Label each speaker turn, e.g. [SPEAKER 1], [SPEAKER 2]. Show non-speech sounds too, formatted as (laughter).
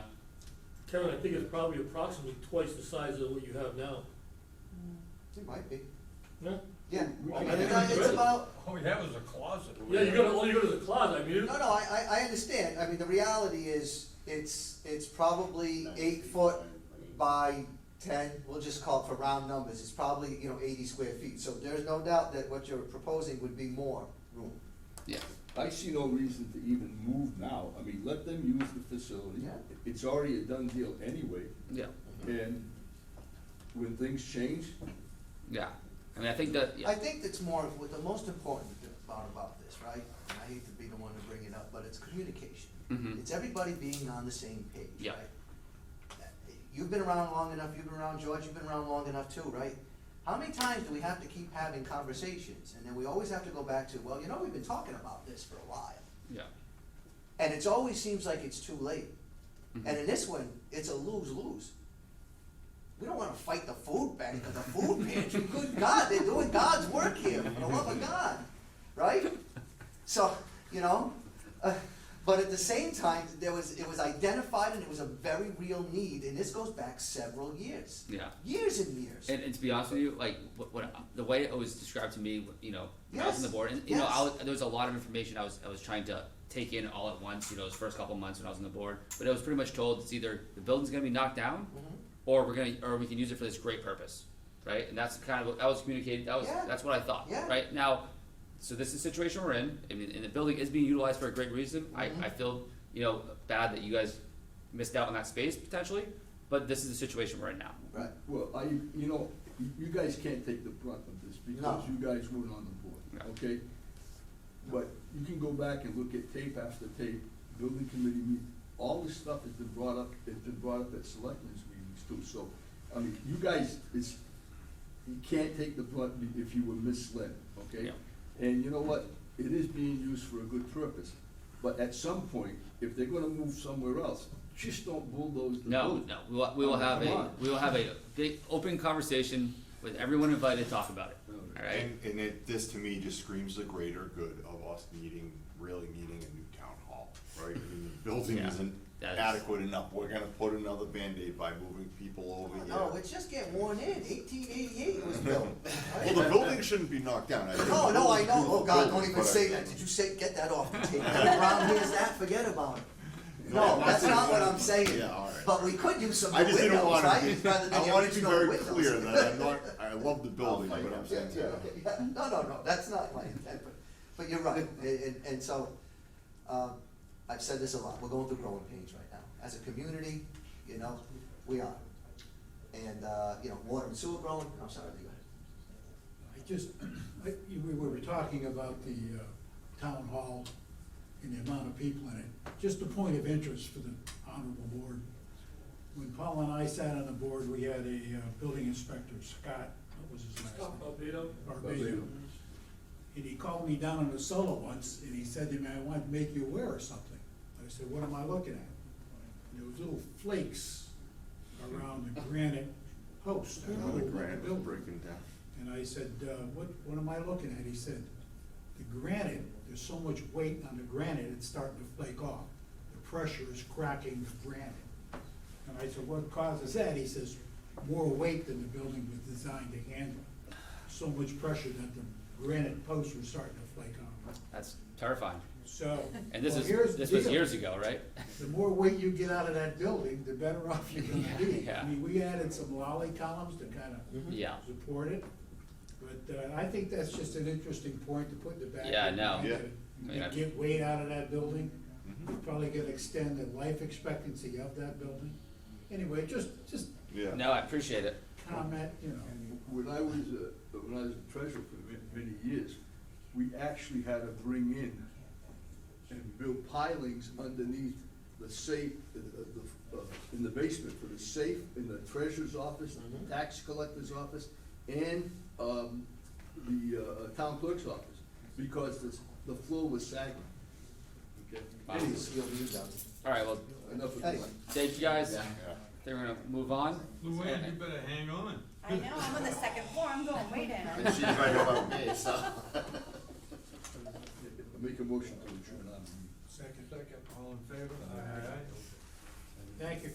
[SPEAKER 1] Kevin, I think it's probably approximately twice the size of what you have now.
[SPEAKER 2] It might be,
[SPEAKER 1] No?
[SPEAKER 2] yeah.
[SPEAKER 1] I
[SPEAKER 2] I mean,
[SPEAKER 1] think
[SPEAKER 2] it's-
[SPEAKER 1] it's
[SPEAKER 2] It's about,
[SPEAKER 3] (laughs) Oh, that was a closet.
[SPEAKER 1] Yeah, you gotta, all you go to the closet, I mean,
[SPEAKER 2] no, no, I, I, I understand, I mean, the reality is, it's, it's probably eight foot by ten, we'll just call it for round numbers, it's probably, you know, eighty square feet, so there's no doubt that what you're proposing would be more room.
[SPEAKER 4] Yeah. I see no reason to even move now. I mean, let them use the facility.
[SPEAKER 2] Yeah.
[SPEAKER 4] It's already a done deal anyway,
[SPEAKER 5] Yeah,
[SPEAKER 4] and when things change,
[SPEAKER 5] yeah. I mean, I think that,
[SPEAKER 2] I
[SPEAKER 5] yeah,
[SPEAKER 2] think that's more, of what the most important part about this, right, and I hate to be the one to bring it up, but it's communication.
[SPEAKER 5] Mhm.
[SPEAKER 2] It's everybody being on the same page, right?
[SPEAKER 5] Yeah.
[SPEAKER 2] You've been around long enough, you've been around George, you've been around long enough too, right? How many times do we have to keep having conversations, and then we always have to go back to, well, you know, we've been talking about this for a while,
[SPEAKER 5] yeah,
[SPEAKER 2] and it's always seems like it's too late. And
[SPEAKER 5] Mhm.
[SPEAKER 2] in this one, it's a lose-lose. We don't wanna fight the food bank or the food pantry, good God, they're doing God's work here, for the love of God, right? So, you know, uh, but at the same time, there was, it was identified and it was a very real need, and this goes back several years.
[SPEAKER 5] yeah.
[SPEAKER 2] Years and years.
[SPEAKER 5] And, and to be honest with you, like what, what the way it was described to me, you know, when I was on the
[SPEAKER 2] Yes,
[SPEAKER 5] board, and you know, I
[SPEAKER 2] yes.
[SPEAKER 5] was, there was a lot of information I was I was trying to take in all at once. You know, those first couple months when I was on the board, but I was pretty much told it's either the building's gonna be knocked down,
[SPEAKER 2] Mhm.
[SPEAKER 5] or we're gonna or we can use it for this great purpose, right? And that's kind of what that was communicated. That was
[SPEAKER 2] Yeah.
[SPEAKER 5] that's what I thought,
[SPEAKER 2] Yeah.
[SPEAKER 5] right? Now, so this is the situation we're in. I mean, and the building is being utilized for a great reason.
[SPEAKER 2] Mhm.
[SPEAKER 5] I, I feel you know bad that you guys missed out on that space potentially, but this is the situation we're in now.
[SPEAKER 2] Right,
[SPEAKER 4] well, I, you know, you you guys can't take the brunt of this because
[SPEAKER 2] No.
[SPEAKER 4] you guys weren't on the
[SPEAKER 5] No.
[SPEAKER 4] board, okay? But you can go back and look at tape after tape, building committee meeting, all this stuff has been brought up, has been brought up at selectmen's meetings too, so, I mean, you guys, it's, you can't take the brunt if you were misled, okay?
[SPEAKER 5] Yeah.
[SPEAKER 4] And you know what, it is being used for a good purpose, but at some point, if they're gonna move somewhere else, just don't bulldoze the
[SPEAKER 5] No,
[SPEAKER 4] building.
[SPEAKER 5] no, we will, we will
[SPEAKER 4] Oh,
[SPEAKER 5] have
[SPEAKER 4] come
[SPEAKER 5] a,
[SPEAKER 4] on.
[SPEAKER 5] we will have a big, open conversation with everyone invited to talk about it,
[SPEAKER 4] All
[SPEAKER 5] alright?
[SPEAKER 6] And, and it, this to me just screams the greater good of us needing, really needing a new town hall, right? I mean,
[SPEAKER 5] (laughs)
[SPEAKER 6] the building
[SPEAKER 5] Yeah,
[SPEAKER 6] isn't
[SPEAKER 5] that's-
[SPEAKER 6] adequate enough, we're gonna put another Band-Aid by moving people over here.
[SPEAKER 2] Oh, no, it's just getting worn in, eighteen eighty-eight was built.
[SPEAKER 6] Well, the building shouldn't be knocked down. I think
[SPEAKER 2] No,
[SPEAKER 6] the
[SPEAKER 2] no, I
[SPEAKER 6] building's
[SPEAKER 2] know,
[SPEAKER 6] beautiful
[SPEAKER 2] oh God, don't
[SPEAKER 6] building,
[SPEAKER 2] even
[SPEAKER 6] but I
[SPEAKER 2] say
[SPEAKER 6] think-
[SPEAKER 2] that, did you say, get that off the
[SPEAKER 6] (laughs)
[SPEAKER 2] tape, that round here's that, forget about it. No,
[SPEAKER 6] I'm
[SPEAKER 2] that's not what I'm saying.
[SPEAKER 6] Yeah, all right.
[SPEAKER 2] But we could use some
[SPEAKER 6] I just didn't
[SPEAKER 2] windows,
[SPEAKER 6] wanna
[SPEAKER 2] right,
[SPEAKER 6] be,
[SPEAKER 2] rather than
[SPEAKER 6] I
[SPEAKER 2] the
[SPEAKER 6] wanted to be
[SPEAKER 2] original
[SPEAKER 6] very
[SPEAKER 2] windows.
[SPEAKER 6] clear that I'm not, I love the building, but I'm
[SPEAKER 2] Yeah,
[SPEAKER 6] saying,
[SPEAKER 2] yeah, okay, yeah. (laughs) no, no, no, that's not my intent, but, but you're right, and, and- and so, um, I've said this a lot, we're going through growing pains right now, as a community, you know, we are. And, uh, you know, water and sewer growing, I'm sorry, go ahead.
[SPEAKER 7] I just, I, you- we were talking about the, uh, town hall and the amount of people in it. Just a point of interest for the honorable board. When Paul and I sat on the board, we had a, uh, building inspector, Scott, what was his last name? Barbato. And he called me down on the solo once, and he said to me, I want to make you aware of something. I said, what am I looking at? And there was little flakes around the granite post.
[SPEAKER 6] I know the granite was
[SPEAKER 7] Building.
[SPEAKER 6] breaking down.
[SPEAKER 7] And I said, uh, what, what am I looking at? He said, the granite, there's so much weight on the granite, it's starting to flake off. The pressure is cracking the granite. And I said, what causes that? He says, more weight than the building was designed to handle. So much pressure that the granite posts were starting to flake off.
[SPEAKER 5] That's terrifying.
[SPEAKER 7] So.
[SPEAKER 5] And this
[SPEAKER 7] well, here's
[SPEAKER 5] is,
[SPEAKER 7] the
[SPEAKER 5] this was
[SPEAKER 7] deal.
[SPEAKER 5] years ago, right?
[SPEAKER 7] The more weight you get out of that building, the better (laughs) off you're gonna be.
[SPEAKER 5] Yeah. Mm-hmm.
[SPEAKER 7] I mean, we added some lolly columns to kind of
[SPEAKER 5] Yeah,
[SPEAKER 7] support it. But uh, I think that's just an interesting point to put in the back.
[SPEAKER 5] Yeah, I know.
[SPEAKER 7] You
[SPEAKER 6] Yeah.
[SPEAKER 5] I mean, I-
[SPEAKER 7] get- You get weight out of that building, you're probably gonna extend the life expectancy of that building. Anyway, just, just
[SPEAKER 6] Yeah.
[SPEAKER 5] no, I appreciate it,
[SPEAKER 7] comment, you know.
[SPEAKER 4] When I was, uh, when I was a treasurer for ma- many years, we actually had to bring in and build pilings underneath the safe, uh, the, uh, in the basement for the safe, in the treasurer's office, tax collector's office, and, um, the, uh, town clerk's office, because the, the floor was sagging. Okay,
[SPEAKER 5] Wow.
[SPEAKER 4] anyway,
[SPEAKER 2] You'll be done.
[SPEAKER 5] alright, well,
[SPEAKER 4] enough of
[SPEAKER 2] Anyway.
[SPEAKER 4] that.
[SPEAKER 5] thank you guys,
[SPEAKER 6] Yeah.
[SPEAKER 5] they're gonna move on.
[SPEAKER 3] Luann, you better hang on.
[SPEAKER 8] I know, I'm on the second floor, I'm going way down.
[SPEAKER 6] And she's right about me, so.
[SPEAKER 4] Make a motion to adjourn on.
[SPEAKER 7] Second,
[SPEAKER 3] All in favor? Aye.
[SPEAKER 7] thank you.